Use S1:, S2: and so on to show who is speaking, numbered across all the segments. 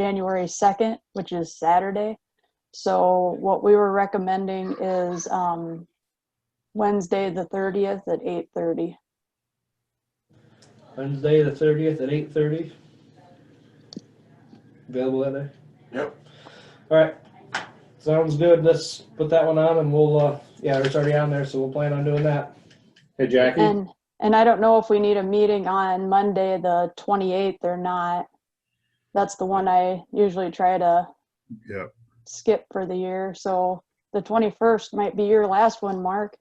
S1: January 2nd, which is Saturday. So what we were recommending is um, Wednesday, the 30th at 8:30.
S2: Wednesday, the thirtieth at eight thirty. Available that day?
S3: Yep.
S2: Alright, sounds good, let's put that one on and we'll, uh, yeah, it's already on there, so we'll plan on doing that.
S4: Hey Jackie,
S1: And, and I don't know if we need a meeting on Monday, the 28th or not. That's the one I usually try to
S3: Yep.
S1: skip for the year. So the 21st might be your last one, Mark.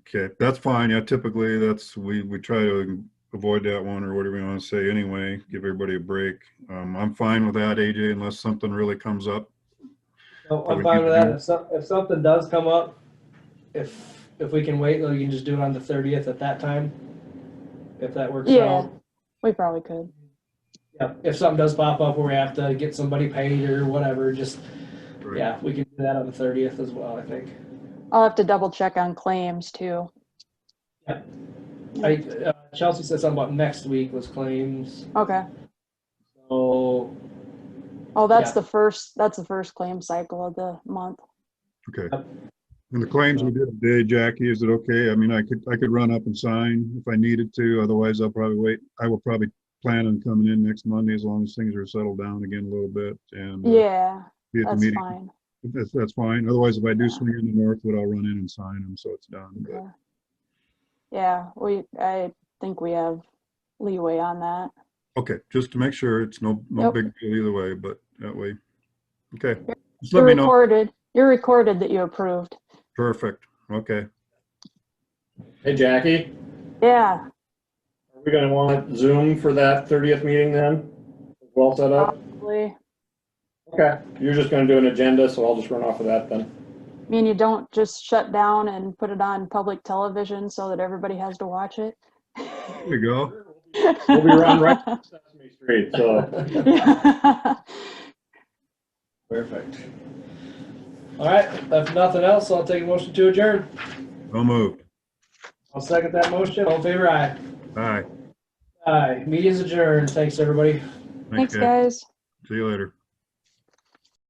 S3: Okay, that's fine. Yeah, typically that's, we, we try to avoid that one or whatever you want to say anyway, give everybody a break. Um, I'm fine with that, AJ, unless something really comes up.
S2: No,
S3: we
S2: I'm fine
S3: keep
S2: with
S3: it
S2: that,
S3: here?
S2: if some, if something does come up, if, if we can wait, though, you can just do it on the thirtieth at that time. If that works
S1: Yeah.
S2: out.
S1: We probably could.
S2: Yeah, if something does pop up where we have to get somebody paid or whatever, just,
S3: right?
S2: yeah, we can do that on the thirtieth as well, I think.
S1: I'll have to double check on claims too.
S2: I, uh, Chelsea said something about next week was claims,
S1: Okay.
S2: so
S1: Oh, that's
S2: Yeah.
S1: the first, that's the first claim cycle of the month.
S3: Okay.
S2: Yep.
S3: And the claims we did today, Jackie, is it okay? I mean, I could, I could run up and sign if I needed to. Otherwise, I'll probably wait. I will probably plan on coming in next Monday as long as things are settled down again a little bit and. uh,
S1: Yeah,
S3: be at the
S1: that's
S3: meeting.
S1: fine.
S3: That's, that's fine. Otherwise, if I
S1: Yeah.
S3: do swing in the Northwood, I'll run in and sign them, so it's done. But
S1: Yeah. Yeah, we, I think we have leeway on that.
S3: Okay, just to make sure, it's no, no
S1: Yep.
S3: big deal either way, but that way, okay. Just
S1: You're
S3: let me know.
S1: recorded, you're recorded that you approved.
S3: Perfect, okay.
S4: hey Jackie,
S1: Yeah,
S4: are we gonna want Zoom for that thirtieth meeting then? Well set up?
S1: probably.
S4: Okay, you're just gonna do an agenda, so I'll just run off of that then.
S1: I mean, you don't just shut down and put it on public television so that everybody has to watch it.
S3: There you go.
S4: We'll be around right from Sesame Street, so.
S2: Perfect. All right, if nothing else, I'll take a motion to adjourn.
S3: No move.
S2: I'll second that motion. All in favor, aye.
S3: Aye.
S2: Aye. Meeting's adjourned. Thanks, everybody.
S1: Thanks,
S3: Okay.
S1: guys.
S3: See you later.